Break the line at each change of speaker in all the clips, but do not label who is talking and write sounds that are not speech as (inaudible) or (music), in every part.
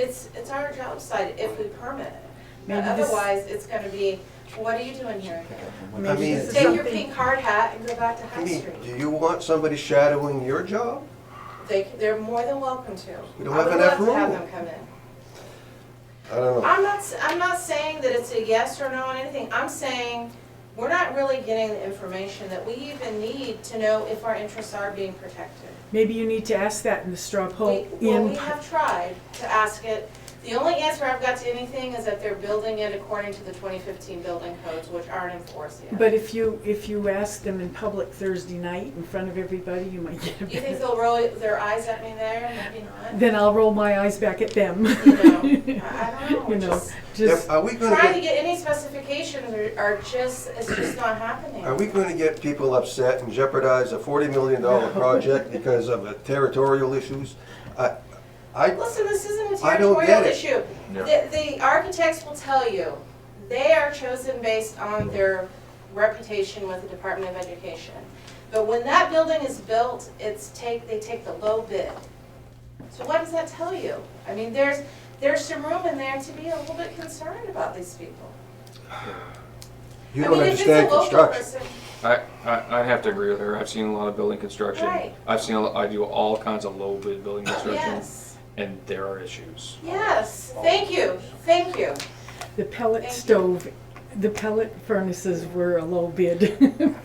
It's, it's our job site if we permit it. But
Maybe this-
otherwise, it's gonna be, what are you doing here again?
Maybe
mean,
this is
Take your
something-
pink hard hat and go back to
I
High
mean, do
Street.
you want somebody shadowing your job?
They, they're more than welcome to.
We don't have
I
enough
would love to have
room.
them come in.
I don't know.
I'm not, s- I'm not saying that it's a yes or no on anything. I'm saying, we're not really getting the information that we even need to know if our interests are being protected.
Maybe you need to ask that in the straw poll
We- Well, we
in,
have tried to ask it. The only answer I've got to anything is that they're building it according to the 2015 building codes, which aren't enforced yet.
but if you, if you ask them in public Thursday night in front of everybody, you might get a
You think
better.
they'll roll their eyes at me there? Maybe (laughs) not.
(laughs) Then I'll roll my eyes back at them.
You know,
(laughs)
I I don't (laughs) know.
You
We're
know,
just
just,
Are we gonna
trying to
get,
get any specifications are- are just, it's just not happening.
are we gonna get people upset and jeopardize a forty million dollar project because of uh, territorial issues? I, I,
Listen, this isn't a
I don't get
territorial
it.
issue. The, the architects will tell you, they are chosen based on their reputation with the Department of Education. But when that building is built, it's take, they take the low bid. So what does that tell you? I mean, there's, there's some room in there to be a little bit concerned about these people.
you
I
don't
mean, if it's a
understand
local
construction.
person-
I, I, I have to agree with her. I've seen a lot of building construction.
Right.
I've seen, a lo- I do all kinds of low bid building construction
Yes,
and there are issues.
yes, thank you, thank you.
the pellet
Thank you.
stove, the pellet furnaces were a low bid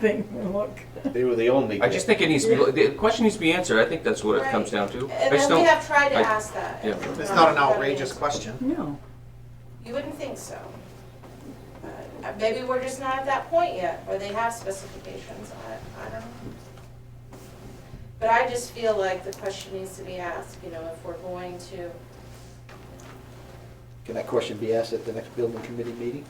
(laughs) thing, look.
They were the only.
I just think it needs to be, the question needs to be answered. I think that's what it comes down to. I
And
just
then we
don't,
have tried to
I-
ask that.
yeah.
It's not an outrageous question.
No,
You wouldn't think so. But, uh, Maybe we're just not at that point yet, where they have specifications, I, I don't know. But I just feel like the question needs to be asked, you know, if we're going to,
Can that question be asked at the next building committee meeting?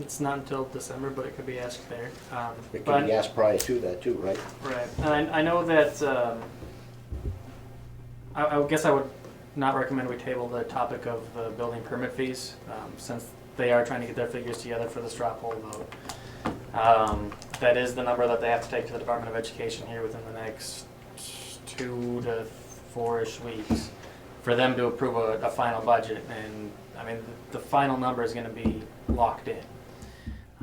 It's not until December, but it could be asked there. Um,
It
but-
can be asked prior to that too, right?
Right, and I, I know that, um, I, I would guess I would not recommend we table the topic of the building permit fees, um, since they are trying to get their figures together for the straw poll vote. Um, that is the number that they have to take to the Department of Education here within the next two to four-ish weeks for them to approve a, a final budget, and, I mean, the, the final number is gonna be locked in.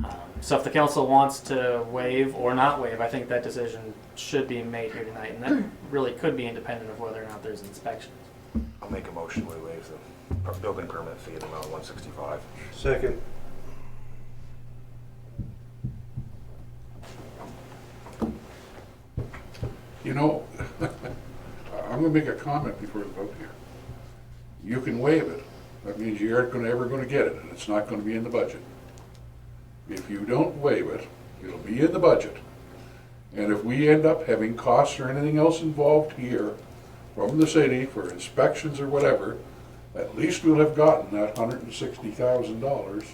Um, So if the council wants to waive or not waive, I think that decision should be made here tonight, and that really could be independent of whether or not there's inspections.
I'll make a motion, we waive the per- building permit fee at amount one sixty-five.
Second.
You know, I'm gonna make a comment before the vote here. You can waive it. That means you aren't gonna, ever gonna get it, and it's not gonna be in the budget. If you don't waive it, it'll be in the budget. And if we end up having costs or anything else involved here from the city for inspections or whatever, at least we'll have gotten that hundred and sixty thousand dollars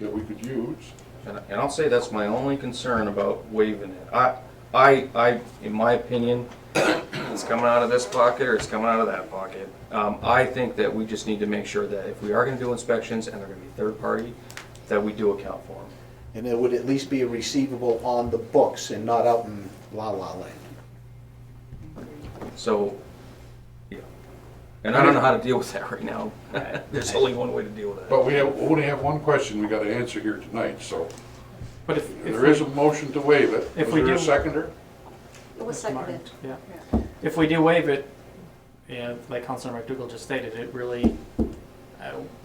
that we could use.
And, and I'll say that's my only concern about waiving it. I, I, I, in my opinion, it's coming out of this pocket or it's coming out of that pocket. Um, I think that we just need to make sure that if we are gonna do inspections and they're gonna be third party, that we do account for them.
And it would at least be a receivable on the books and not out in la la land.
So, yeah. And I don't know how to deal with that right now. (laughs) There's only one way to deal with that.
But we have, only have one question we gotta answer here tonight, so
But if, if
There
we,
is a motion to waive it.
If
Was
we
there a
do-
seconder?
It was seconded.
yeah, if we do waive it, yeah, like Councilor McDougal just stated, it really, uh,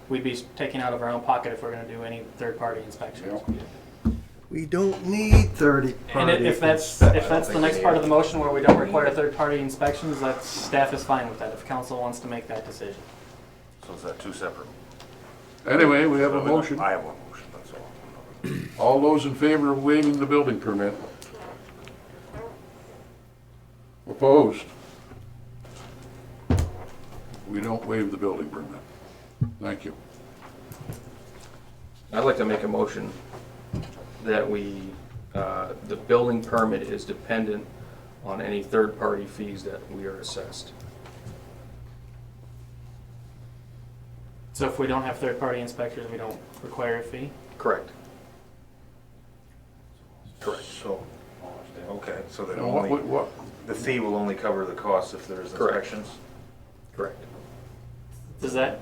we'd be taking out of our own pocket if we're gonna do any third-party inspections.
Yeah.
We don't need thirty
And i-
party
if that's, if
inspectors.
that's the next part of the motion where we don't require third-party inspections, that staff is fine with that, if council wants to make that decision.
So is that two separate?
Anyway, we have a motion.
I have one motion, that's all.
All those in favor of waiving the building permit? Opposed? We don't waive the building permit. Thank you.
I'd like to make a motion that we, uh, the building permit is dependent on any third-party fees that we are assessed.
So if we don't have third-party inspectors, we don't require a fee?
Correct.
Correct. So, okay, so then
And what, what-
only,
what,
the fee will only cover the cost if there's
Correct.
inspections?
Correct.
Does that